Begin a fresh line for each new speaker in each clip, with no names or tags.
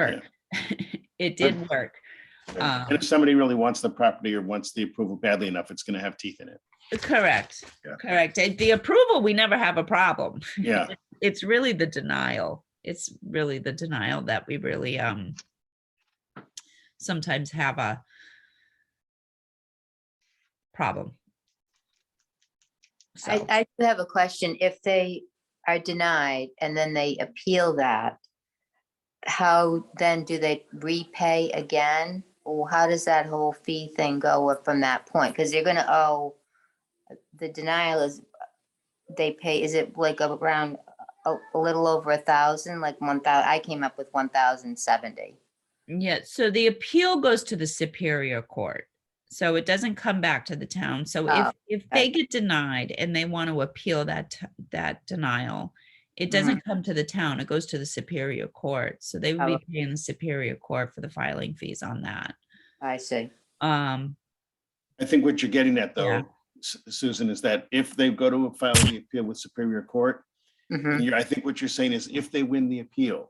work. It did work.
Yeah.
Um,
And if somebody really wants the property or wants the approval badly enough, it's gonna have teeth in it.
Correct,
Yeah.
correct. Uh, The approval, we never have a problem.
Yeah,
It's really the denial. It's really the denial that we really um sometimes have a problem.
I,
So,
I do have a question. If they are denied and then they appeal that, how then do they repay again? Or how does that whole fee thing go up from that point? Because they're gonna owe, the denial is, they pay, is it like around a, a little over a thousand, like one thou, I came up with one thousand seventy.
yeah, so the appeal goes to the Superior Court. So it doesn't come back to the town. So if,
Oh,
if they get denied and they want to appeal that, t- that denial, it
Mhm.
doesn't come to the town. It goes to the Superior Court. So they would
Oh,
be
okay.
paying the Superior Court for the filing fees on that.
I see.
Um,
I think what you're getting at
Yeah.
though, Su- Susan, is that if they go to file the appeal with Superior Court,
Mhm.
you're- I think what you're saying is if they win the appeal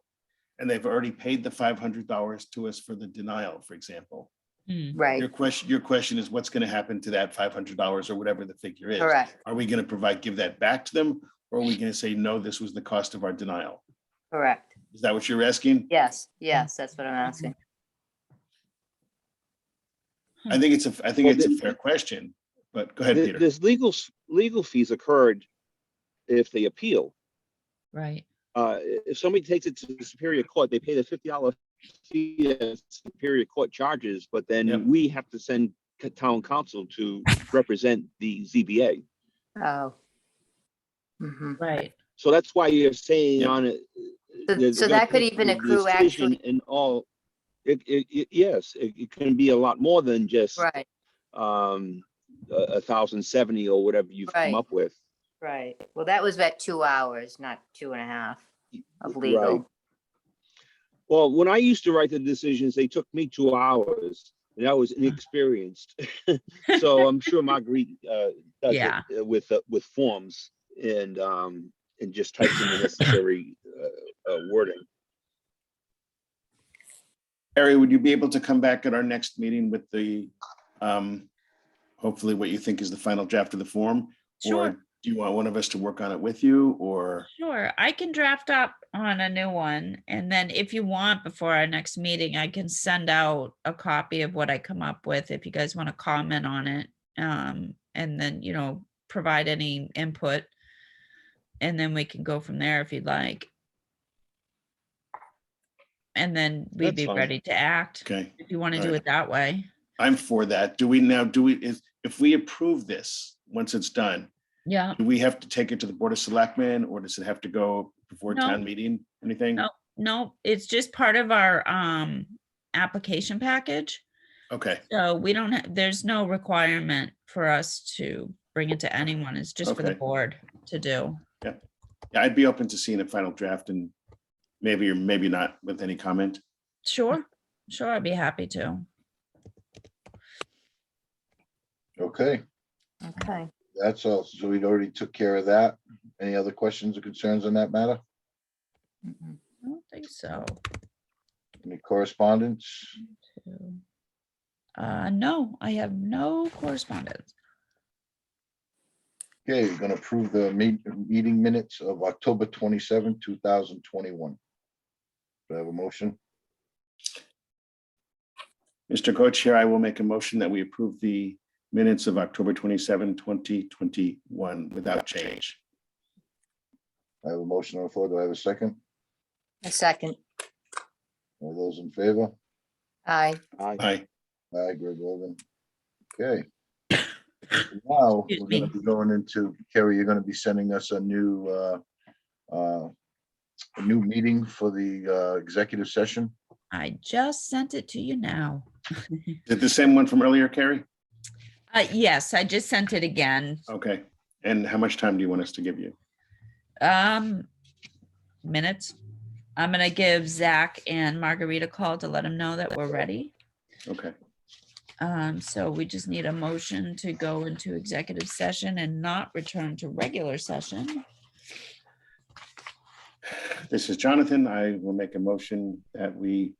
and they've already paid the five hundred dollars to us for the denial, for example.
mm,
Right,
Your question, your question is what's gonna happen to that five hundred dollars or whatever the figure is?
correct,
Are we gonna provide, give that back to them? Or are we gonna say, no, this was the cost of our denial?
correct.
Is that what you're asking?
Yes, yes, that's what I'm asking.
I think it's a, I think
Well,
it's a
the-
fair question, but go ahead,
Th-
Peter.
There's legal, s- legal fees occurred if they appeal.
right.
Uh, i- if somebody takes it to the Superior Court, they pay the fifty dollar fee that Superior Court charges, but
Yep.
then we have to send c- town council to represent the ZBA.
Oh. Mhm.
Right.
So that's why you're saying
Yep.
on it. uh,
So-
there's
so
gonna
that could
take
even
the
accrue
decision
actually-
And all, it, it, it- yes, it, it can be a lot more than just,
Right,
um, a thousand seventy or whatever you've come
Right.
up with.
right. Well, that was at two hours, not two and a half of
Right.
legal.
Well, when I used to write the decisions, they took me two hours and I was inexperienced. So I'm sure Marguerite, uh, does
Yeah.
it uh, with, uh, with forms and, um, and just types in the necessary, uh, uh, wording.
Harry, would you be able to come back at our next meeting with the, um, hopefully what you think is the final draft of the form? Or
Sure,
do you want one of us to work on it with you or?
sure. I can draft up on a new one. And then if you want, before our next meeting, I can send out a copy of what I come up with if you guys want to comment on it. Um, and then, you know, provide any input. And then we can go from there if you'd like. And then we'd
That's
be
fine.
ready to act
Okay,
if you want to do
Alright.
it that way.
I'm for that. Do we now, do we, is, if we approve this, once it's done,
Yeah.
do we have to take it to the Board of Selectmen or does it have to go before
No.
town meeting? Anything?
No. No, it's just part of our, um, application package.
Okay,
So we don't, ha- there's no requirement for us to bring it to anyone. It's just for the
Okay.
board to do.
Yeah, I'd be open to seeing a final draft and maybe or maybe not with any comment.
Sure, sure, I'd be happy to.
Okay,
Okay.
that's all. So we'd already took care of that. Any other questions or concerns on that matter?
Mhm.
I don't think so.
Any correspondence?
too. Uh, no, I have no correspondence.
Okay, we're gonna approve the ma- meeting minutes of October twenty-seven, two thousand twenty-one. Do I have a motion?
Mr. Co-Chair, I will make a motion that we approve the minutes of October 27, 2021 without change.
I have a motion on the floor. Do I have a second?
A second.
All those in favor?
Aye.
I-
Aye.
Aye, Greg Logan. Okay. Now, we're
Excuse
gonna
me.
be going into, Kerry, you're gonna be sending us a new, uh, uh, a new meeting for the, uh, executive session.
I just sent it to you now.
Is it the same one from earlier, Carrie?
Uh, yes, I just sent it again.
Okay. And how much time do you want us to give you?
Um, minutes. I'm gonna give Zach and Margarita a call to let them know that we're ready.
Okay.
Um, so we just need a motion to go into executive session and not return to regular session.
This is Jonathan. I will make a motion that we